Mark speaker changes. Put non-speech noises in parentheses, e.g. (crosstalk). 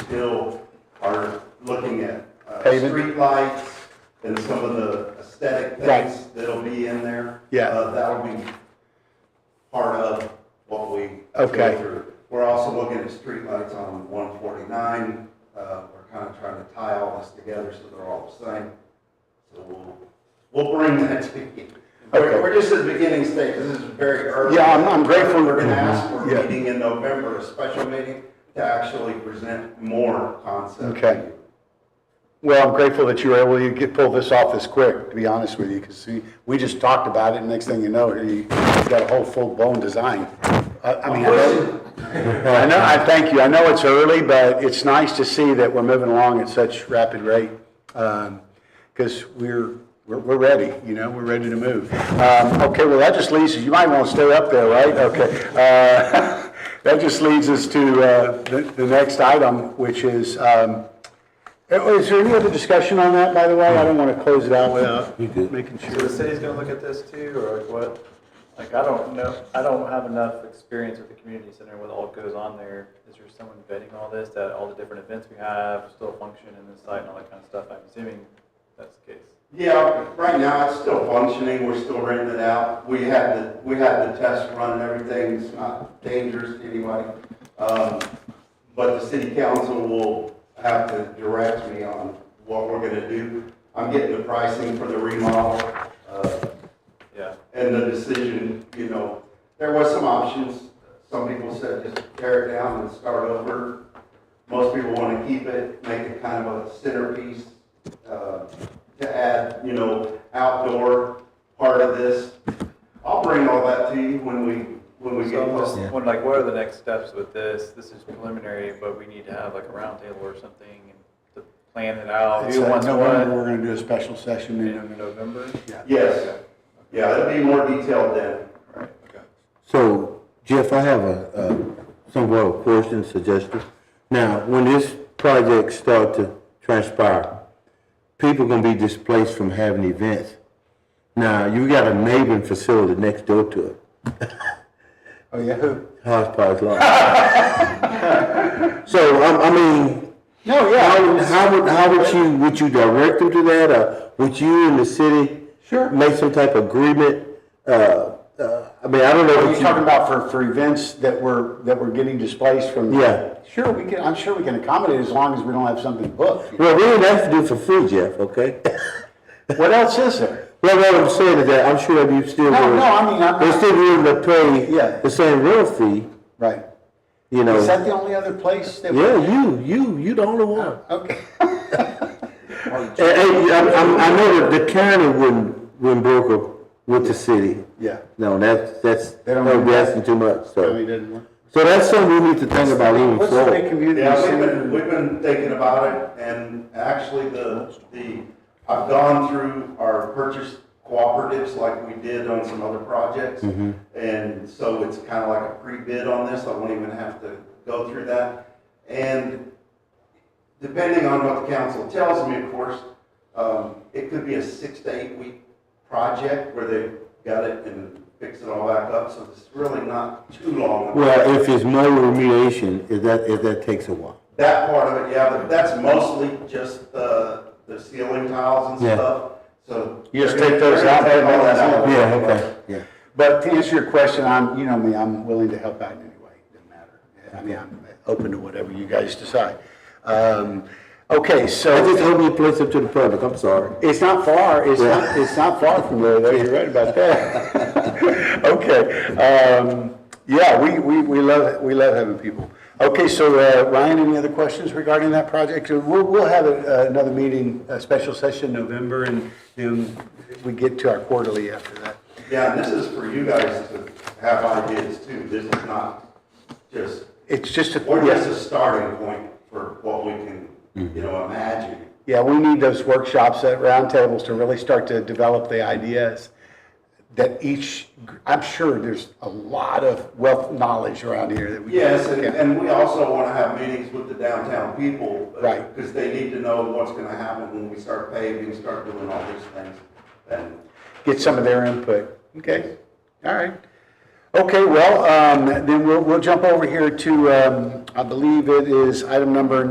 Speaker 1: still are looking at uh,
Speaker 2: Paving?
Speaker 1: streetlights and some of the aesthetic
Speaker 2: Right.
Speaker 1: things that'll be in there.
Speaker 2: Yeah.
Speaker 1: Uh, That'll be part of what we. go
Speaker 2: Okay.
Speaker 1: through. We're also looking at streetlights on 149. Uh, We're kind of trying to tie all this together so they're all the same. So we'll, we'll bring that to you.
Speaker 2: Okay.
Speaker 1: We're we're just at the beginning stage, this is very early.
Speaker 2: Yeah, I'm- I'm grateful.
Speaker 1: We're gonna ask for
Speaker 2: Yeah.
Speaker 1: a meeting in November, a special meeting, to actually present more concepts.
Speaker 2: Okay. Well, I'm grateful that you were able to get, pull this off this quick, to be honest with you, because we just talked about it, and next thing you know, here you- you've got a whole full-blown design. I I mean, I know, I know, I thank you, I know it's early, but it's nice to see that we're moving along at such rapid rate, because we're, we're, we're ready, you know, we're ready to move. Um, Okay, well, that just leads, you might want to stay up there, right? Okay. Uh, (laughs) That just leads us to uh, the, the next item, which is, um, uh, Is there any other discussion on that, by the way? I don't want to close it out without making
Speaker 3: So the
Speaker 2: sure.
Speaker 3: city's gonna look at this too, or like what? Like, I don't know, I don't have enough experience with the community center, what all goes on there. Is there someone vetting all this, that all the different events we have still function in this site and all that kind of stuff? I'm assuming that's the case.
Speaker 1: Yeah, right now, it's still functioning, we're still renting it out. We had the, we had the test run and everything, it's not dangerous to anybody. Um, But the city council will have to direct me on what we're gonna do. I'm getting the pricing for the remodel. uh,
Speaker 3: Yeah,
Speaker 1: and the decision, you know, there was some options. Some people said just tear it down and start over. Most people want to keep it, make it kind of a centerpiece, uh, to add, you know, outdoor part of this. I'll bring all that to you when we, when we
Speaker 3: so
Speaker 1: get
Speaker 3: I'm just
Speaker 1: closer.
Speaker 3: wondering, like, what are the next steps with this? This is preliminary, but we need to have like a roundtable or something and to plan it out.
Speaker 2: It's,
Speaker 3: Who
Speaker 2: uh,
Speaker 3: wants
Speaker 2: November,
Speaker 3: what?
Speaker 2: We're going to do a special session
Speaker 3: In
Speaker 2: in
Speaker 3: November?
Speaker 1: Yes, yeah, it'll be more detailed then.
Speaker 3: Right, okay.
Speaker 4: So Jeff, I have a, a somewhat of a question, suggestion. Now, when this project start to transpire, people gonna be displaced from having events. Now, you got a neighboring facility next door to it,
Speaker 2: Oh, yeah, who?
Speaker 4: Hodgepodge Lawn. (laughs) So, I, I mean,
Speaker 2: No,
Speaker 4: how,
Speaker 2: yeah.
Speaker 4: how would, how would you, would you direct them to that, or would you and the city?
Speaker 2: Sure.
Speaker 4: Make some type of agreement, uh, uh, I mean, I don't know.
Speaker 2: Are
Speaker 4: what
Speaker 2: you talking about for, for events that were, that were getting displaced from?
Speaker 4: Yeah.
Speaker 2: Sure, we can, I'm sure we can accommodate as long as we don't have something booked.
Speaker 4: Well, we didn't have to do it for free, Jeff, okay?
Speaker 2: What else is there?
Speaker 4: Well, what I'm saying is that I'm sure that you still.
Speaker 2: No,
Speaker 4: would-
Speaker 2: no, I mean, I'm
Speaker 4: They
Speaker 2: not,
Speaker 4: still willing to pay.
Speaker 2: Yeah.
Speaker 4: The same real fee,
Speaker 2: right.
Speaker 4: you know.
Speaker 2: Is that the only other place that? we-
Speaker 4: Yeah, you, you, you the only one.
Speaker 2: Okay. (laughs)
Speaker 4: And, and I, I, I know that the county wouldn't, wouldn't broker with the city.
Speaker 2: Yeah.
Speaker 4: No, that's, that's,
Speaker 2: They don't-
Speaker 4: that would be asking too much,
Speaker 2: Really
Speaker 4: so.
Speaker 2: didn't work.
Speaker 4: So that's something we need to think about even
Speaker 2: What's the big
Speaker 4: forward.
Speaker 2: community?
Speaker 1: Yeah, we've
Speaker 2: center?
Speaker 1: been, we've been thinking about it, and actually, the, the, I've gone through our purchase cooperatives like we did on some other projects, and so it's kind of like a pre-bid on this, I won't even have to go through that. And depending on what the council tells me, of course, um, it could be a six to eight week project where they got it and fix it all back up, so it's really not too long.
Speaker 4: Well, if it's no remediation, if that, if that takes a while.
Speaker 1: That part of it, yeah, but that's mostly just the, the ceiling tiles and
Speaker 4: Yeah.
Speaker 1: stuff, so.
Speaker 2: You just
Speaker 1: they're
Speaker 2: take
Speaker 1: gonna-
Speaker 2: those
Speaker 1: they're
Speaker 2: out,
Speaker 1: gonna
Speaker 2: put
Speaker 1: take all
Speaker 2: them
Speaker 1: that
Speaker 2: in.
Speaker 1: out.
Speaker 4: Yeah, okay, yeah.
Speaker 2: But to answer your question, I'm, you know me, I'm willing to help out in any way, doesn't matter. I mean, I'm open to whatever you guys decide. Um, Okay,
Speaker 4: I just
Speaker 2: so
Speaker 4: hope you place up to the public, I'm sorry.
Speaker 2: it's not far, it's not, it's not far from there, though, you're right about that. (laughs) Okay, um, yeah, we, we, we love, we love having people. Okay, so uh, Ryan, any other questions regarding that project? Uh, We'll, we'll have a- uh, another meeting, a special session in November, and then we get to our quarterly after that.
Speaker 1: Yeah, and this is for you guys to have ideas too, this is not just,
Speaker 2: It's just a.
Speaker 1: we're
Speaker 2: yes.
Speaker 1: just a starting point for what we can,
Speaker 2: Mm-hmm.
Speaker 1: you know, imagine.
Speaker 2: Yeah, we need those workshops at roundtables to really start to develop the ideas that each, I'm sure there's a lot of wealth knowledge around here that we. can-
Speaker 1: Yes, and, and we also want to have meetings with the downtown people.
Speaker 2: Right.
Speaker 1: Because they need to know what's going to happen when we start paving, start doing all these things, and
Speaker 2: Get some of their input. Okay, all right. Okay, well, um, then we'll, we'll jump over here to, um, I believe it is item number